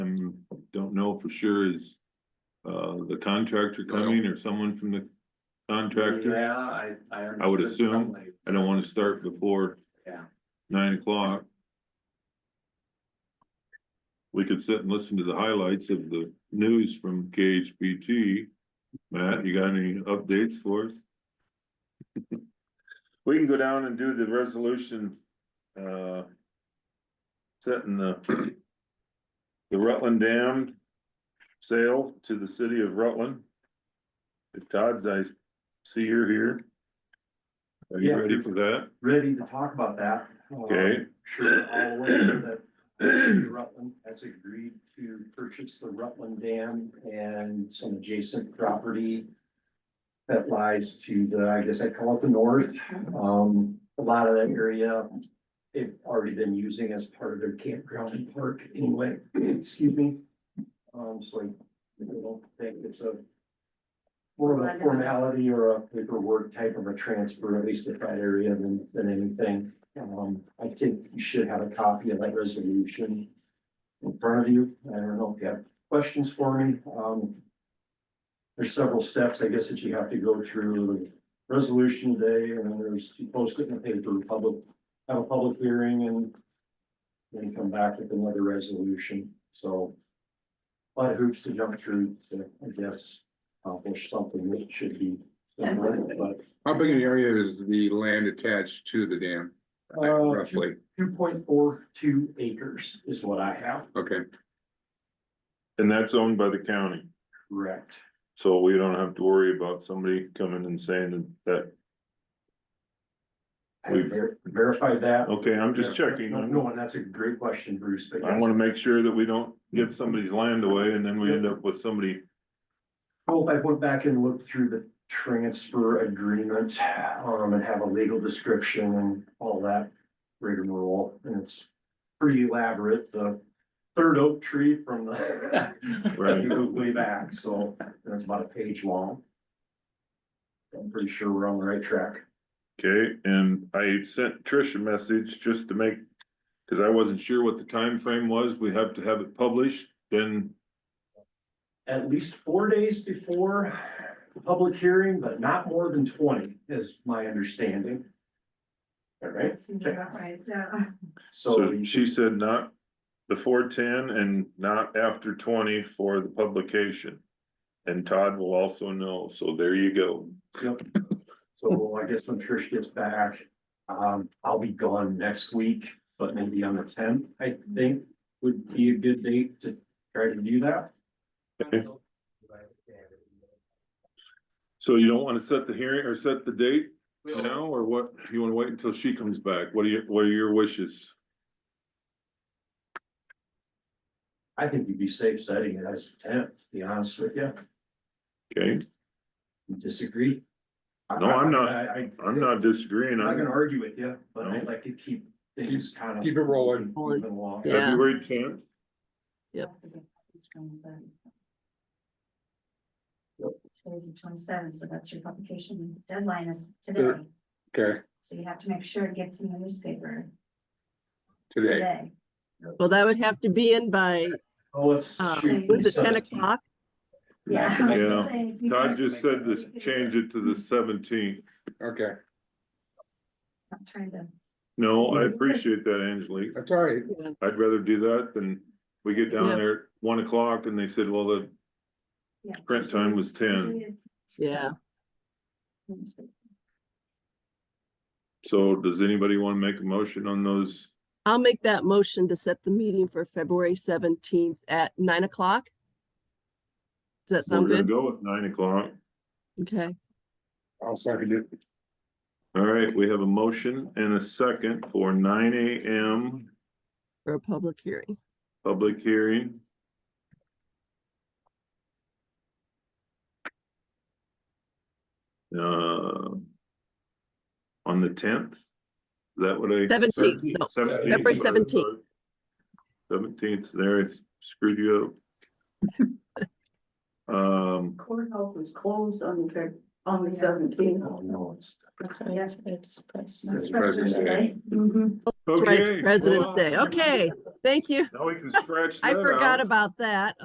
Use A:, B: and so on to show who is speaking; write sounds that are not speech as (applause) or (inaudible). A: know for sure is uh, the contractor coming or someone from the contractor.
B: Yeah, I, I.
A: I would
B: understood
A: assume.
B: something.
A: I don't want to start before
B: Yeah.
A: nine o'clock. We could sit and listen to the highlights of the news from KHBT. Matt, you got any updates for us? We can go down and do the resolution, uh. Setting the. The Rutland Dam. Sale to the city of Rutland. If Todd's, I see you're here. Are you
B: Yeah.
A: ready for that?
B: Ready to talk about that. Uh,
A: Okay.
B: Sure, all aware that Rutland has agreed to purchase the Rutland Dam and some adjacent property. That lies to the, I guess I call it the north, um, a lot of that area. They've already been using as part of their campground and park anyway, excuse me. Um, so I don't think it's a. More of a formality or a paperwork type of a transfer, at least to that area than, than anything. Um, I think you should have a copy of that resolution in front of you. I don't know if you have questions for me. Um. There's several steps, I guess, that you have to go through. Resolution day, and then there's, you post it in the paper, public, have a public hearing and then come back with another resolution. So a lot of hoops to jump through to, I guess, accomplish something that should be done, but
C: How big an area is the land attached to the dam? like,
B: Uh,
C: Roughly,
B: two point four two acres is what I have.
C: okay,
A: And that's owned by the county,
B: Correct.
A: so we don't have to worry about somebody coming and saying that,
B: I haven't ver- verified that.
A: okay, I'm Oh, just checking.
B: No,
A: I
B: no, and that's a great question, Bruce, but I
A: wanna make sure that we don't give somebody's land away and then we end up with
B: (laughs)
A: somebody,
B: hope I went back and looked through the transfer agreement, um, and have a legal description and all that rigmarole, and it's pretty elaborate, the third oak tree from the
A: Right.
B: you go way back, so that's about a page long. I'm pretty sure we're on the right track.
A: okay? And I sent Trish a message just to make, cause I wasn't sure what the time frame was, we have to have it published, then,
B: at least four days before the public hearing, but not more than twenty is my understanding. All right,
D: Seems about right, yeah.
B: so
A: so she said not before ten and not after twenty for the publication. And Todd will also know, so there you go.
B: so I guess when Trish gets back, um, I'll be gone next week, but maybe on the tenth, I think would be a good date to try to do that.
A: Okay. So you don't wanna set the hearing or set the date now, or what, you wanna wait until she comes back, what are your, what are your wishes?
B: I think you'd be safe setting it as tenth, to be honest with you.
A: Okay,
B: You Disagree?
A: No, I'm not.
B: I- I-
A: I'm not disagreeing,
B: I'm not
A: on
B: gonna argue with you, but I'd
A: No.
B: like to keep things kind of.
C: Keep it rolling.
B: moving along.
E: Yeah.
A: February tenth,
E: Yep.
D: Today's the twenty-seventh, so that's your publication deadline is today,
C: okay,
D: so you have to make sure it gets in the newspaper
C: today,
D: today.
E: Well, that would have to be in by,
B: Oh, it's.
E: um,
D: Tuesday,
E: was it ten
B: 17.
E: o'clock?
D: Yeah. (laughs)
A: Yeah.
D: Saying-
A: Todd just said to change it to the seventeenth,
C: okay,
D: I'm trying to,
A: no, I appreciate that, Angelique,
C: that's all right,
E: Yeah.
A: I'd rather do that than we get down
E: Yeah.
A: there at one o'clock and they said, well, the
D: yeah.
A: print time was ten,
E: Yeah.
A: so does anybody wanna make a motion on those?
E: I'll make that motion to set the meeting for February seventeenth at nine o'clock. Does that sound
A: We're gonna
E: good?
A: go with nine o'clock,
E: Okay,
C: I'll second it.
A: all right, we have a motion and a second for nine AM
E: for a public hearing.
A: Public hearing. Uh. On the tenth, is that what I?
E: Seventeenth, no, February seventeenth.
A: Seventeenth, there, I screwed you up. Um,
F: Courthouse was closed on the, fif- on the seventeenth.
B: Oh, no, it's.
D: Yes, it's.
C: It's President's Day.
F: Mm-hmm.
E: That's right,
A: Okay,
E: it's President's
A: well,
E: Day. Okay, thank you.
A: now we can scratch that
E: I
A: out.
E: forgot about that.